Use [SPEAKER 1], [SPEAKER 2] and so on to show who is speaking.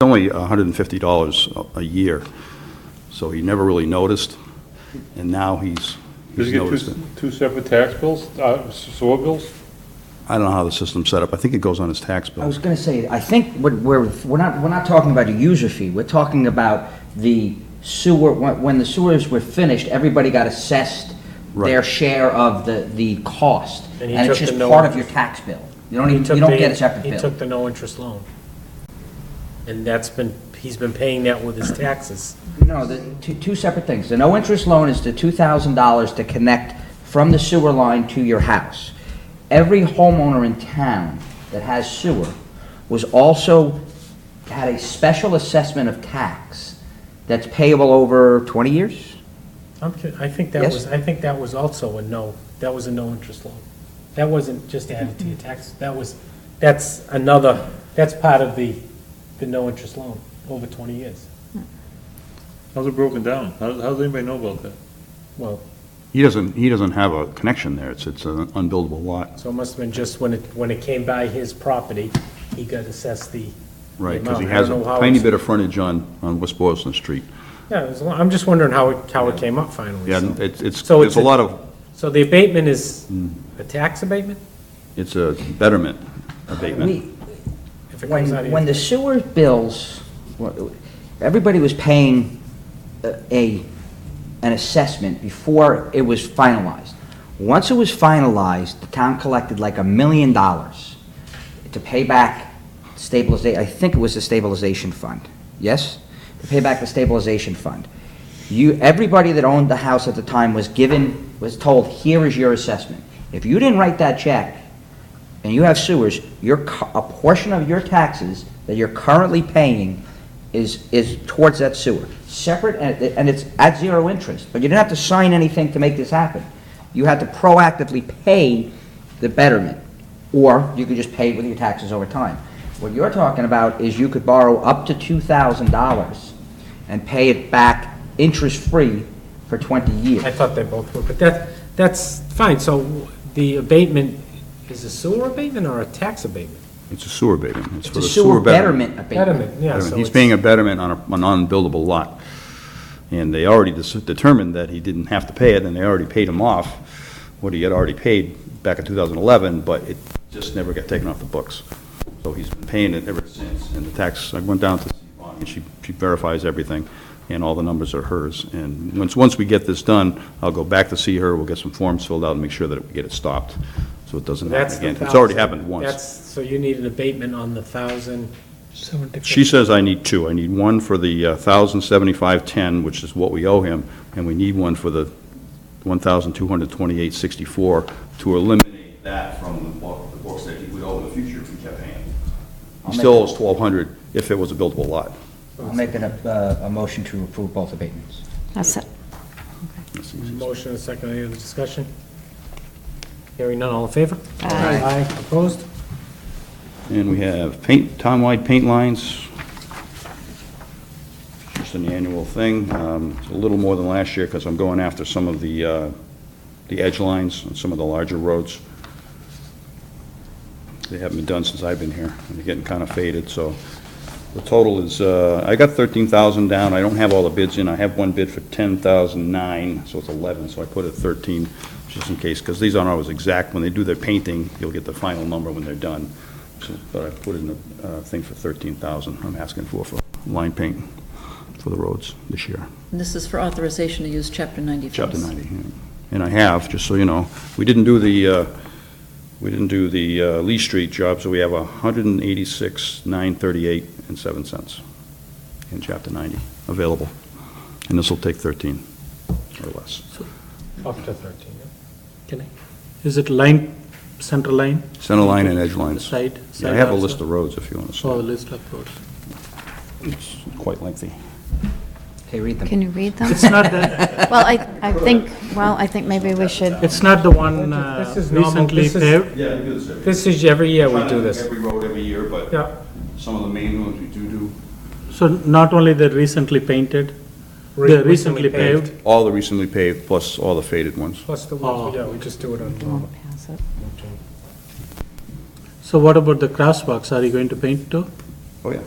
[SPEAKER 1] only uh, $150 a- a year, so he never really noticed, and now he's,
[SPEAKER 2] Does
[SPEAKER 1] he's
[SPEAKER 2] he get
[SPEAKER 1] noticed
[SPEAKER 2] two,
[SPEAKER 1] it.
[SPEAKER 2] two separate tax bills, uh, sewer bills?
[SPEAKER 1] I don't know how the system's set up. I think it goes on his tax
[SPEAKER 3] I
[SPEAKER 1] bill.
[SPEAKER 3] was going to say, I think what we're, we're not, we're not talking about a user fee, we're talking about the sewer, when when the sewers were finished, everybody got assessed their
[SPEAKER 1] Right.
[SPEAKER 3] share of the, the cost, and
[SPEAKER 4] And he
[SPEAKER 3] it's
[SPEAKER 4] took the
[SPEAKER 3] just
[SPEAKER 4] no-
[SPEAKER 3] part of your tax bill. You don't
[SPEAKER 4] He
[SPEAKER 3] even,
[SPEAKER 4] took
[SPEAKER 3] you don't
[SPEAKER 4] the-
[SPEAKER 3] get a separate
[SPEAKER 4] He
[SPEAKER 3] bill.
[SPEAKER 4] took the no-interest loan. And that's been, he's been paying that with his taxes.
[SPEAKER 3] No, the, two, two separate things. The no-interest loan is the two thousand dollars to connect from the sewer line to your house. Every homeowner in town that has sewer was also, had a special assessment of tax that's payable over twenty years?
[SPEAKER 4] I'm, ki- I think that
[SPEAKER 3] Yes?
[SPEAKER 4] was, I think that was also a no, that was a no-interest loan. That wasn't just added to your tax, that was, that's another, that's part of the, the no-interest loan, over 20 years.
[SPEAKER 2] How's it broken down? How, how does anybody know about that?
[SPEAKER 4] Well,
[SPEAKER 1] He doesn't, he doesn't have a connection there. It's, it's an unbuildable lot,
[SPEAKER 4] so it must have been just when it, when it came by his property, he got assessed the.
[SPEAKER 1] right?
[SPEAKER 4] the
[SPEAKER 1] Because he
[SPEAKER 4] amount. I
[SPEAKER 1] has
[SPEAKER 4] don't
[SPEAKER 1] a
[SPEAKER 4] know how
[SPEAKER 1] tiny
[SPEAKER 4] it's-
[SPEAKER 1] bit of frontage on, on West Boylston Street.
[SPEAKER 4] Yeah, it was a lot- I'm just wondering how it, how it came up finally.
[SPEAKER 1] Yeah,
[SPEAKER 4] so.
[SPEAKER 1] and it's, it's,
[SPEAKER 4] So
[SPEAKER 1] there's a lot of, Hmm.
[SPEAKER 4] So the abatement is a tax abatement?
[SPEAKER 1] it's a betterment abatement.
[SPEAKER 3] We-
[SPEAKER 4] If it comes out of
[SPEAKER 3] When,
[SPEAKER 4] your-
[SPEAKER 3] when the sewer bills, everybody was paying a- a, an assessment before it was finalized. Once it was finalized, the town collected like a million dollars to pay back stabilization, I think it was the stabilization fund, yes? To pay back the stabilization fund. You, everybody that owned the house at the time was given, was told, here is your assessment. If you didn't write that check, and you have sewers, your, cu- a portion of your taxes that you're currently paying is, is towards that sewer. Separate, and it- and it's at zero interest, but you didn't have to sign anything to make this happen. You had to proactively pay the betterment, or you could just pay it with your taxes over time. What you're talking about is you could borrow up to two thousand dollars and pay it back interest-free for twenty
[SPEAKER 4] I
[SPEAKER 3] years.
[SPEAKER 4] thought they both were, but that, that's fine, so the abatement is a sewer abatement or a tax abatement?
[SPEAKER 1] It's a sewer abatement. It's for
[SPEAKER 3] The
[SPEAKER 1] the sewer betterment.
[SPEAKER 3] abatement.
[SPEAKER 4] Betterment, yeah, so
[SPEAKER 1] He's
[SPEAKER 4] it's-
[SPEAKER 1] paying a betterment on a, an unbuildable lot. And they already dis- determined that he didn't have to pay it, and they already paid him off what he had already paid back in 2011, but it just never got taken off the books. So he's been paying it ever since, and the tax, I went down to Yvonne, and she, she verifies everything, and all the numbers are hers. And once, once we get this done, I'll go back to see her, we'll get some forms filled out and make sure that we get it stopped, so it doesn't
[SPEAKER 4] That's
[SPEAKER 1] happen
[SPEAKER 4] the
[SPEAKER 1] again. It's already
[SPEAKER 4] 1,000.
[SPEAKER 1] happened once.
[SPEAKER 4] That's, so you need an abatement on the thousand?
[SPEAKER 1] She says I need two. I need one for the uh, 1,075.10, which is what we owe him, and we need one for the 1,228.64 to eliminate that from the book- the books that he would owe in the future if we kept paying. He
[SPEAKER 3] make
[SPEAKER 1] still owes 1,200 if it was a buildable lot.
[SPEAKER 3] I'll make an, uh, a motion to approve both abatements.
[SPEAKER 5] That's it.
[SPEAKER 4] Motion and second, any other discussion? Hearing none, all in favor?
[SPEAKER 5] Aye.
[SPEAKER 4] Aye, opposed?
[SPEAKER 1] And we have paint, town-wide paint lines. Just an annual thing. Um, It's a little more than last year because I'm going after some of the, uh, the edge lines on some of the larger roads. They haven't been done since I've been here, and they're getting kind of faded, so the total is, uh, I got 13,000 down, I don't have all the bids in, I have one bid for 10,009, so it's 11, so I put it 13, just in case, because these aren't always exact, when they do their painting, you'll get the final number when they're done, So, but I put in a uh, thing for 13,000, I'm asking for, for line paint for the roads this year.
[SPEAKER 5] And this is for authorization to use Chapter 90 funds.
[SPEAKER 1] Chapter 90, yeah. and I have, just so you know. We didn't do the, uh, we didn't do the uh, Lee Street job, so we have 186, 938 and 7 cents in Chapter 90 available. And this will take 13 or less.
[SPEAKER 4] Up to thirteen, yeah.
[SPEAKER 6] Can I? Is it line, center line?
[SPEAKER 1] Center line and edge lines.
[SPEAKER 6] Side?
[SPEAKER 1] Yeah, I
[SPEAKER 6] side
[SPEAKER 1] have a
[SPEAKER 6] also?
[SPEAKER 1] list of roads if you want to
[SPEAKER 6] Oh, the
[SPEAKER 1] see.
[SPEAKER 6] list of roads.
[SPEAKER 1] It's quite lengthy.
[SPEAKER 3] Okay, read them.
[SPEAKER 5] Can you read them?
[SPEAKER 6] It's not the,
[SPEAKER 5] Well, I, I think, well, I think maybe we should,
[SPEAKER 6] it's not the one uh,
[SPEAKER 4] This is normal,
[SPEAKER 6] recently
[SPEAKER 4] this is-
[SPEAKER 6] paved?
[SPEAKER 1] Yeah, we do this every
[SPEAKER 4] This is, every year we do this.
[SPEAKER 1] Every road every year, but
[SPEAKER 4] Yeah.
[SPEAKER 1] some of the main ones we do do.
[SPEAKER 6] So not only the recently painted,
[SPEAKER 4] Re-
[SPEAKER 6] the recently paved?
[SPEAKER 1] All the recently paved, plus all the faded ones.
[SPEAKER 4] Plus the ones,
[SPEAKER 6] Oh.
[SPEAKER 4] yeah, we just do it on.
[SPEAKER 5] we won't pass it.
[SPEAKER 6] So what about the crosswalks? Are you going to paint too?
[SPEAKER 1] Oh, yeah.